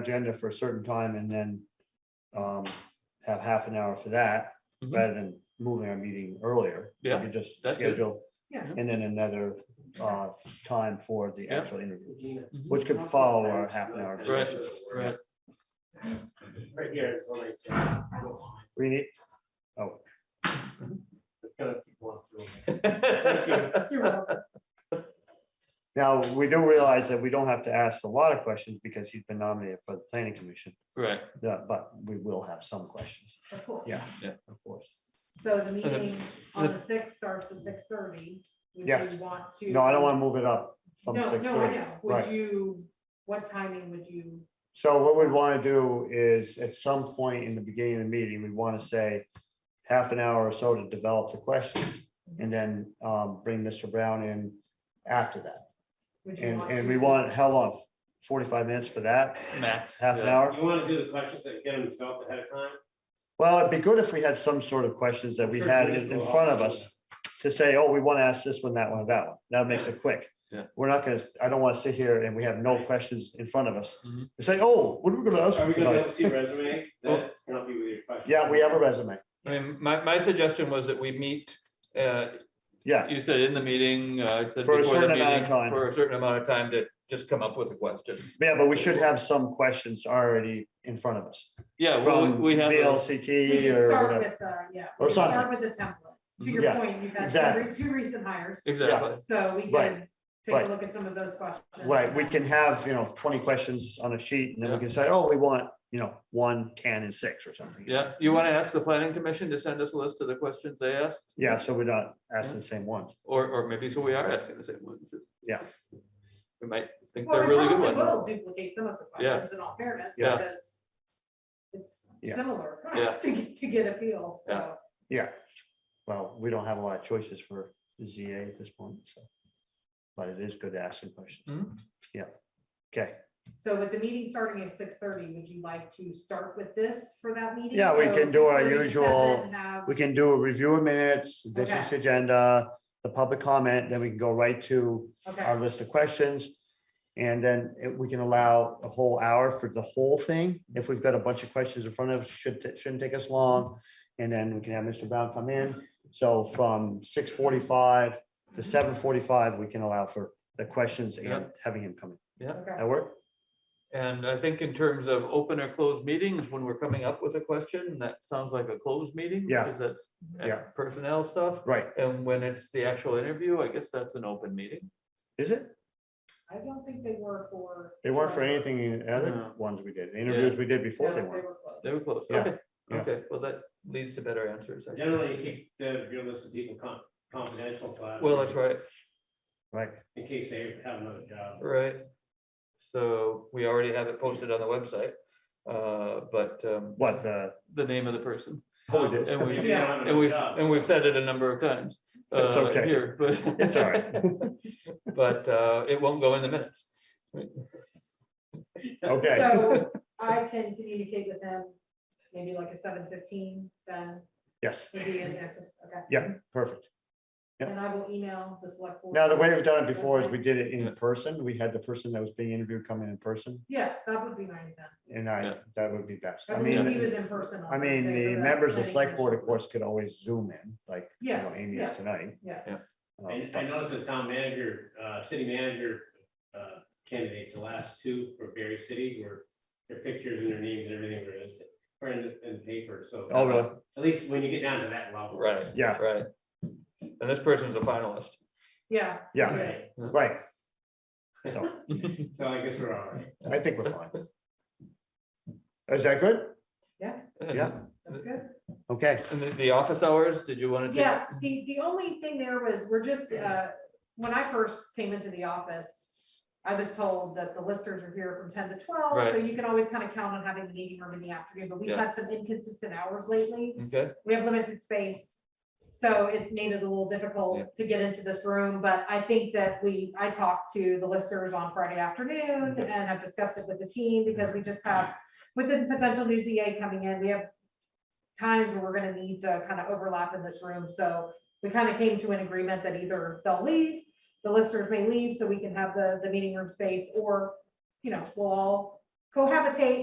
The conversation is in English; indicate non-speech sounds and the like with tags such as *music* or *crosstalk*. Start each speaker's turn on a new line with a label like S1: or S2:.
S1: agenda for a certain time and then um, have half an hour for that,
S2: Mhm.
S1: rather than moving our meeting earlier. We
S2: Yeah,
S1: could Just
S2: that's good.
S1: schedule.
S3: Yeah.
S1: And then another uh, time for the
S2: Yeah.
S1: actual interview,
S2: Mhm.
S1: which could follow our half an hour.
S2: Right,
S1: discussion.
S2: right.
S4: Right here. is what I said.
S1: We need,
S4: It's gonna keep going
S2: *laughs*
S4: through.
S1: now, we do realize that we don't have to ask a lot of questions because he's been nominated for the planning commission,
S2: Right,
S1: Yeah, but we will have some questions,
S3: Of course.
S1: Yeah.
S2: Yeah.
S1: of course.
S3: So the
S2: then-
S3: meeting on the sixth starts at six thirty. Would
S1: Yes.
S3: you want to?
S1: No, I don't want to move it up from
S3: No,
S1: six
S3: no, I
S1: thirty.
S3: know.
S1: Right.
S3: Would you, what timing would you,
S1: So what we want to do is at some point in the beginning of the meeting, we want to say half an hour or so to develop the questions and then um, bring Mr. Brown in after that.
S3: would you
S1: And,
S3: want?
S1: and
S3: to-
S1: we want, how long? Forty-five minutes for that?
S2: max.
S1: Half an
S2: yeah.
S1: hour?
S4: You wanna do the questions that get them developed ahead of time?
S1: Well, it'd be good if we had some sort of questions that we had in in front of us to say, oh, we want to ask this one, that one, that one. That makes it quick.
S2: Yeah.
S1: We're not gonna, I don't want to sit here and we have no questions in front of us.
S2: Mhm.
S1: And Say, oh, what are we gonna ask?
S4: Mm-hmm. Are we gonna be
S1: tonight?"
S4: able to see a resume?
S2: Oh.
S4: That's gonna be with your question.
S1: Yeah, we have a resume.
S2: I mean, my, my suggestion was that we meet, uh,
S1: Yeah,
S2: you said in the meeting, uh, it said
S1: For a
S2: before the
S1: certain amount of
S2: meeting,
S1: time.
S2: for a certain amount of time to just come up with a question.
S1: yeah, but we should have some questions already in front of us.
S2: Yeah, well,
S1: From
S2: we we have, a-
S3: We
S1: VLCT
S3: can
S1: or
S3: start
S1: whatever.
S3: with, uh, yeah.
S1: Or
S3: we can Start
S1: something. Mm-hmm.
S3: with the template. To your
S1: Yeah,
S3: point, you've had
S1: exactly.
S3: two re- two recent hires,
S2: exactly,
S3: so we can
S1: Right,
S3: take
S1: right.
S3: a look at some of those questions.
S1: Right, we can have, you know, twenty questions on a sheet and then we
S2: Yeah.
S1: can say, oh, we want, you know, one, ten and six or something.
S2: yeah. You want to ask the planning commission to send us a list of the questions they asked?
S1: Yeah, so we're not asking the same ones.
S2: Or, or maybe so we are asking the same ones.
S1: Yeah.
S2: We might think
S3: Well,
S2: they're
S3: we
S2: really good
S3: probably
S2: ones.
S3: Will duplicate some of the
S2: Yeah.
S3: questions in all fairness,
S2: Yeah.
S3: because it's
S1: Yeah.
S3: similar
S2: Yeah.
S3: *laughs* to, get- to get a feel, so.
S2: Yeah.
S1: Yeah. Well, we don't have a lot of choices for ZA at this point, so. But it is good to ask some questions.
S2: Mhm.
S1: Yeah. Okay,
S3: So with the meeting starting at six thirty, would you like to start with this for that meeting?
S1: Yeah, we
S3: So
S1: can do our
S3: 6:30 to
S1: usual-
S3: 7, have-
S1: we can do a review of minutes, this is
S3: Okay.
S1: agenda, the public comment, then we can go right to
S3: Okay,
S1: our list of questions. And then it- we can allow a whole hour for the whole thing. If we've got a bunch of questions in front of us, should, it shouldn't take us long. And then we can have Mr. Brown come in. So from six forty-five to seven forty-five, we can allow for the questions and
S2: Yeah.
S1: having him come in.
S3: okay,
S1: That work?
S2: And I think in terms of open or closed meetings, when we're coming up with a question, that sounds like a closed meeting.
S1: Yeah.
S2: Because that's uh,
S1: Yeah.
S2: personnel stuff.
S1: Right,
S2: And when it's the actual interview, I guess that's an open meeting.
S1: is it?
S3: I don't think they were for.
S1: They weren't for anything in other
S2: No.
S1: ones we did, The interviews we did
S3: No,
S1: before
S3: they
S1: they weren't.
S3: were closed.
S2: They were close.
S1: Yeah,
S2: Okay,
S1: yeah.
S2: okay. Well, that leads to better answers. I think.
S4: Generally, you keep the, your list of people con- confidential. but-
S2: Well, that's right,
S1: Right,
S4: In case they have another job.
S2: right. So we already have it posted on the website, uh, but um,
S1: what the,
S2: the name of the person.
S1: oh, we did.
S2: And we,
S4: Maybe they don't have
S2: and we've,
S4: another job.
S2: and we've said it a number of times.
S1: That's
S2: uh,
S1: okay.
S2: Here, but.
S1: *laughs* It's all right.
S2: *laughs* But uh, it won't go in the minutes.
S1: okay, *laughs*
S3: So I can communicate with him, maybe like a seven fifteen, then
S1: yes,
S3: would be in Texas, okay?
S1: Yeah. perfect. yeah.
S3: And I will email the select. board
S1: Now, the way
S3: first.
S1: we've done it before is we did it
S2: Yeah.
S1: in person. We had the person that was being interviewed come in in person,
S3: Yes, that would be my intent.
S1: and I,
S2: Yeah.
S1: that would be best.
S3: I
S1: I
S3: believe he
S1: mean,
S3: was in person. on
S1: I mean,
S3: Thursday
S1: the
S3: for
S1: members of
S3: planning
S1: select board, of
S3: commission.
S1: course, could always zoom in, like, you know,
S3: Yes,
S1: Amy
S3: yeah.
S1: is tonight.
S3: Yeah.
S2: Yeah.
S1: Uh,
S4: I, I
S1: but-
S4: noticed the town manager, uh, city manager, uh, candidates, the last two for Berry City were their pictures and their names and everything were in, were in, in paper, so.
S1: Oh, really?
S4: At least when you get down to that level.
S2: Right.
S1: Yeah.
S2: Right. And this person's a finalist.
S3: Yeah.
S1: Yeah.
S3: it is.
S1: Right. So
S4: So I guess we're all right.
S1: I think we're fine. Is that good? Yeah.
S3: That's good.
S1: Okay,
S2: And the, the office hours, did you want to?
S3: Yeah, the, the only thing there was, we're just, uh, when I first came into the office, I was told that the listers are here from ten to twelve, so
S2: Right.
S3: you can always kind of count on having the meeting room in the afternoon, but we've
S2: Yeah.
S3: had some inconsistent hours lately.
S2: Okay,
S3: We have limited space, so it made it a little
S2: Yeah.
S3: difficult to get into this room, but I think that we, I talked to the listers on Friday afternoon
S2: Okay.
S3: and I've discussed it with the team because we just have, with the potential new ZA coming in, we have times where we're gonna need to kind of overlap in this room, so we kind of came to an agreement that either they'll leave, the listers may leave so we can have the, the meeting room space, or, you know, we'll all cohabitate